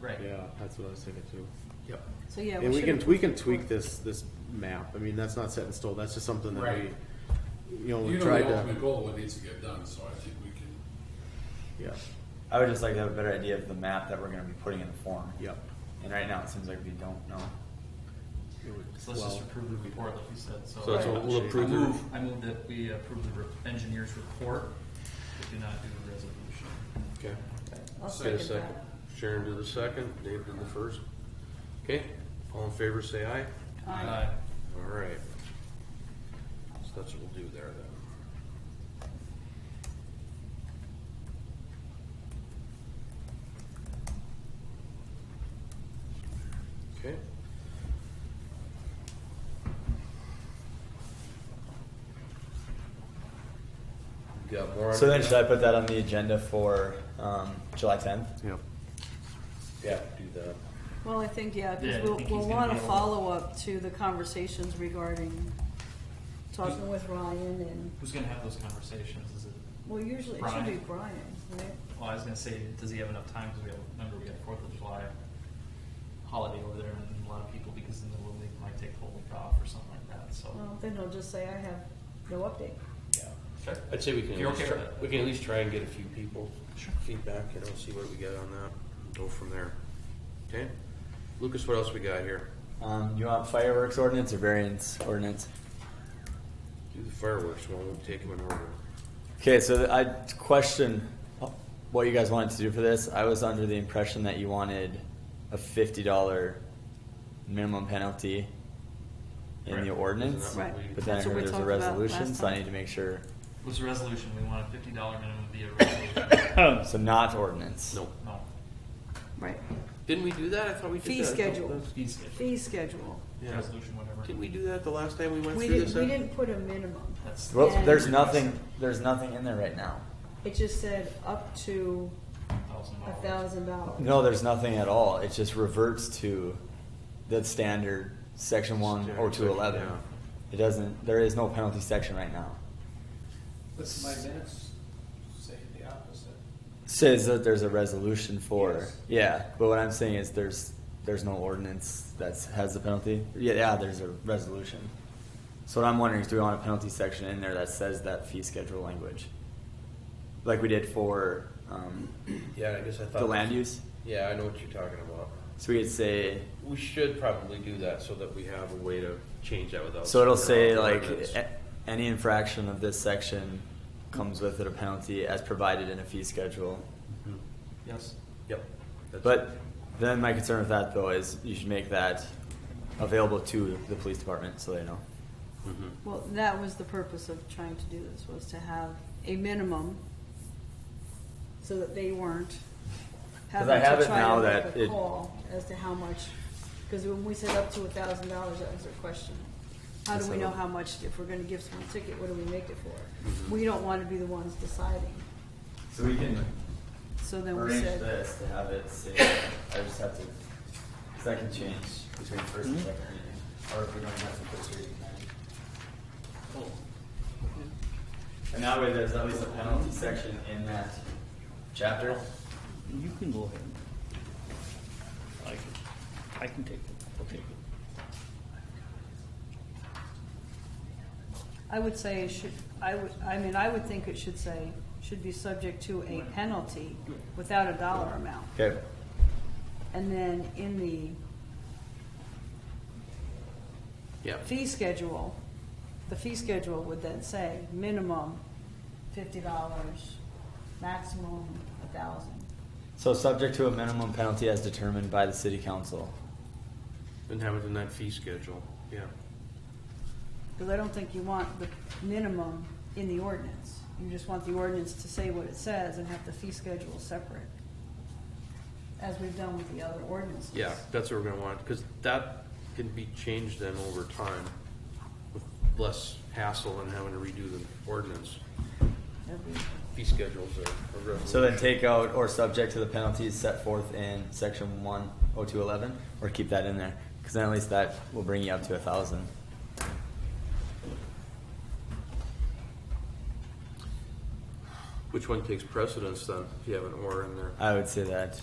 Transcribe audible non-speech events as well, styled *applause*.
Right. Yeah, that's what I was thinking too. Yep. So, yeah. And we should can, have- we can tweak this, this map. I mean, that's not set in stone. That's just something that Right. we, you know, we You know tried the to, ultimate goal, what needs to get done, so I think we can, yeah, I would just like to have a better idea of the map that we're gonna be putting in the form. yep. And right now, it seems like we don't know. It would- So let's just well, approve the report like you said, so. So that's what we'll I approve the- move, I move that we approve the re- engineer's report, but do not do the resolution. Okay. I'll Get a second second. that. Sharon did the second, Dave did the first. Okay, all in favor, say aye. Aye. Uh, All right. So that's what we'll do there then. Okay. You Got more? on So then, that? should I put that on the agenda for um, July 10th? Yep. Yeah, do that. Well, I think, yeah, Yeah, I because we'll, think he's we'll gonna want be to able to- follow up to the conversations regarding talking with Ryan and, Who's gonna have those conversations? Is it, well, usually it should be Brian. Brian, right? well, I was gonna say, does he have enough time? Cause we have, remember, we got Fourth of July holiday over there and a lot of people, because in the little league might take the whole week off or something like that, so. Well, then he'll just say, I have no update. Yeah. Sure. I'd say we can, If at you're least okay try, with that. we can at least try and get a few people Sure. feedback, you know, see what we get on that, and go from there. Okay? Lucas, what else we got here? Um, you want fireworks ordinance or variance ordinance? Do the fireworks, one. we'll take them in order. Okay, so th- I question what you guys wanted to do for this. I was under the impression that you wanted a $50 minimum penalty in Right. the ordinance, Isn't that what we- but then I That's what heard we there's a talked about resolution, last so I time. need to make sure. Was the resolution, we want a fifty dollar minimum via *coughs* resolution. So not ordinance. No. No, Right. Didn't we do that? I thought we did Fee that. a couple schedule. times. fee schedule, Fee schedule. Yeah. resolution, whatever. Didn't we do that the last time we went We through this? didn't, we huh? didn't put a minimum. That's, Well, And- there's nothing. There's nothing in there right now. It just said up to thousand a dollars. thousand dollars. No, there's nothing at all. It just reverts to the standard section one or Standard two eleven. section, It doesn't. There is no penalty section right now. But my minutes say the opposite. Says that there's a resolution for Yes. yeah. But what I'm saying is there's there's no ordinance that has the penalty. Yeah, yeah. There's a resolution. So what I'm wondering is, do we want a penalty section in there that says that fee schedule language, like we did for um, Yeah, I guess I thought. the land use? Yeah, I know what you're talking about. So we could say We should probably do that so that we have a way to change that without. Oh, So it'll say without the like, eh, ordinance. a- any infraction of this section comes with it a penalty as provided in a fee schedule. Yes. Yep. That's- But then my concern with that though is you should make that available to the police department so they know. Mhm. Well, that was the purpose of trying to do this, was to have a minimum so that they weren't Because having I have to it try now to that make a it- call as to how much, because when we said up to a thousand dollars, that was their question. How do Yes, we I know know. how much, if we're gonna give someone a ticket, what do we make it for? We don't wanna be the ones deciding, So we can so then we arrange said, this to have it say, I just have to, second change between first and second reading. Or if we don't have to first reading then. And that way there's at least a penalty section in that chapter. You can go ahead. I can, I can take it, I'll take it. I would say it should, I would, I mean, I would think it should say, should be subject to a penalty without a dollar amount. Okay. And then in the Yeah. fee schedule, the fee schedule would then say minimum fifty dollars, maximum a thousand. So subject to a minimum penalty as determined by the city council. And have it in that fee schedule, yeah. Because I don't think you want the minimum in the ordinance. You just want the ordinance to say what it says and have the fee schedule separate, as we've done with the other ordinances. Yeah, that's what we're gonna want, because that can be changed then over time with less hassle and having to redo the ordinance, Every- fee schedules or. or So then take out or subject to the penalties set forth in section one oh two eleven, or keep that in there, because then at least that will bring you up to a thousand. Which one takes precedence then, if you have an or in there? I would say that